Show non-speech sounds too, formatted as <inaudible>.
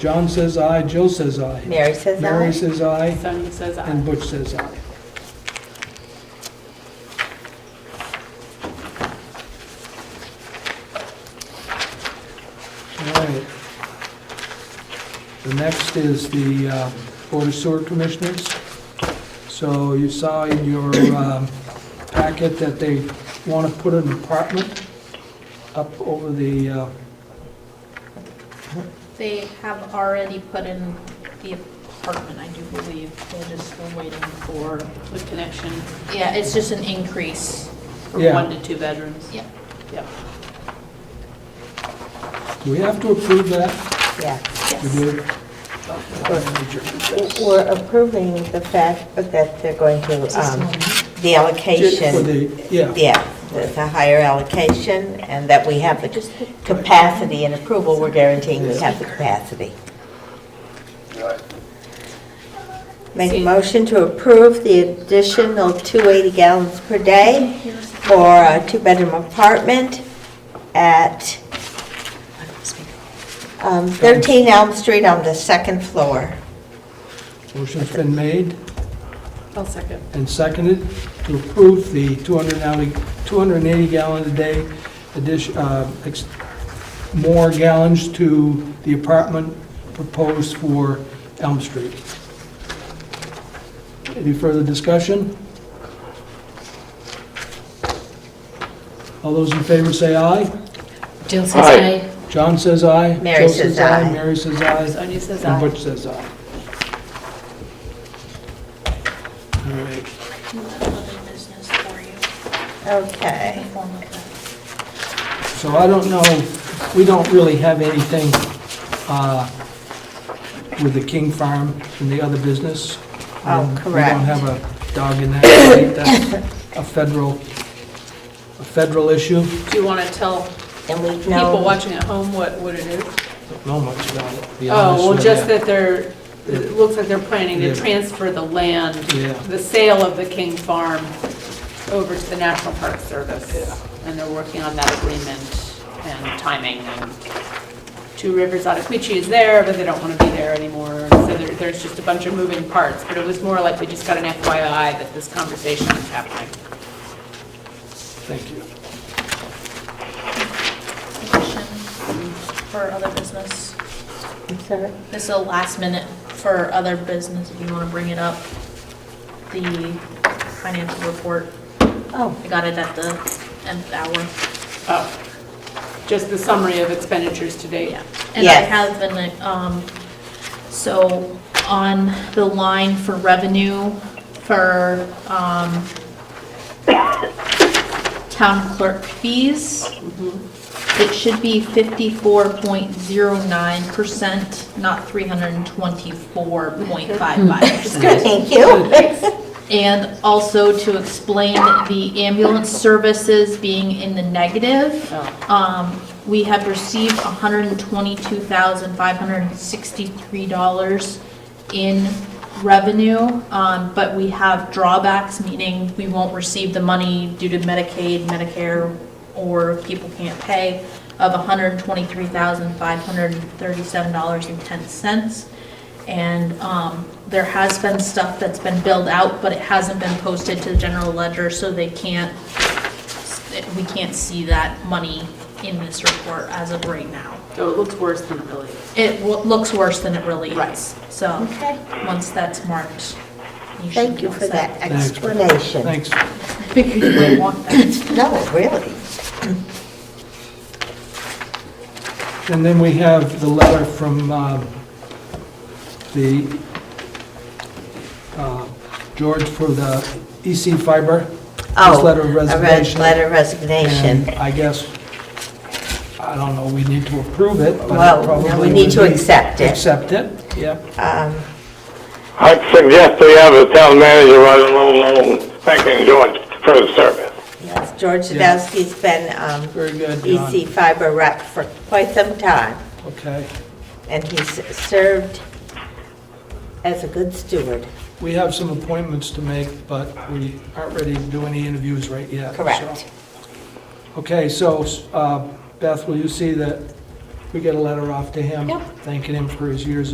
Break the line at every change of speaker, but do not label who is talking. John says aye, Jill says aye.
Mary says
Mary
aye.
says aye,
Sonia says
and
aye.
Butch says aye. All right. The next is the uh, Board of Sewer Commissioners. So you saw in your um, packet that they want to put an apartment up over the, uh,
They have already put in the apartment, I do believe. They're just still waiting for the connection. Yeah, it's just an increase from
Yeah.
one to two bedrooms.
Yeah.
Yep.
do we have to approve that?
Yeah.
We do?
We're approving the fact that they're going to, um, the allocation.
For the- Yeah.
Yeah, with a higher allocation, and that we have the capacity and approval, we're guaranteeing we have the capacity. Make a motion to approve the additional 280 gallons per day for a two-bedroom apartment at um, 13 Elm Street on the second floor.
Motion's been made
I'll second.
and seconded to approve the 280-gallon-a-day addition, uh, ex- more gallons to the apartment proposed for Elm Street. Any further discussion? All those in favor say aye.
Jill says aye.
John says aye.
Mary
Joe
says aye.
Mary says aye.
Sonia says
And
aye.
Butch says aye. All right.
Other business for you,
Okay.
in the form of that.
So I don't know, we don't really have anything uh, with the King Farm and the other business.
Oh,
Um, We
correct.
don't have a dog in that. I think That's a federal, a federal issue.
Do you want to tell
And we
people
know,
watching at home what, what it is?
Don't know much about it, to be honest
Oh, well,
with
just
you.
that they're, it looks like they're planning
Yeah.
to transfer the land,
Yeah.
the sale of the King Farm over to the National Park Service. And they're working on that agreement and timing. and Two Rivers Ottaquiche is there, but they don't want to be there anymore. So there, there's just a bunch of moving parts. But it was more like we just got an FYI that this conversation is happening.
Thank you.
petition for other business.
I'm sorry.
This is a last minute for other business, if you want to bring it up. The financial report,
Oh,
I got it at the end of the hour.
Oh, Just the summary of expenditures to date.
Yeah, and I
Yes.
have been, um, so on the line for revenue for, um, town clerk fees, it should be fifty-four point zero nine percent, not three hundred and twenty-four point five five percent.
thank you.
And also to explain the ambulance services being in the negative.
Oh.
Um, we have received hundred and twenty-two thousand, five hundred and sixty-three dollars in revenue, um, but we have drawbacks, meaning we won't receive the money due to Medicaid, Medicare, or people can't pay, of hundred and twenty-three thousand, five hundred and thirty-seven dollars and ten cents. And um, there has been stuff that's been billed out, but it hasn't been posted to the general ledger, so they can't, we can't see that money in this report as of right now.
So it looks worse than it really is.
It wo- looks worse than it really
Right.
is. So,
<laughs> Okay.
once that's marked, you should
Thank
be
you
all
for
set.
that explanation.
Thanks.
Because you don't want that.
No, really.
And then we have the letter from um, the, uh, George for the EC Fiber.
Oh,
His letter of
A red
resignation.
letter of resignation.
And I guess, I don't know, we need to approve it, but
Well,
it
no,
probably...
we need
would
to
be-
accept it.
Accept it, yeah.
Um,
I'd suggest we have the town manager write a little note thanking George for his service.
yes, George
Yeah.
Sadowski's been um,
Very good, John.
EC fiber rep for quite some time,
Okay.
and he's served as a good steward.
We have some appointments to make, but we aren't ready to do any interviews right yet. so-
Correct.
Okay, so uh, Beth, will you see that we get a letter off to him
Yep.
thanking him for his years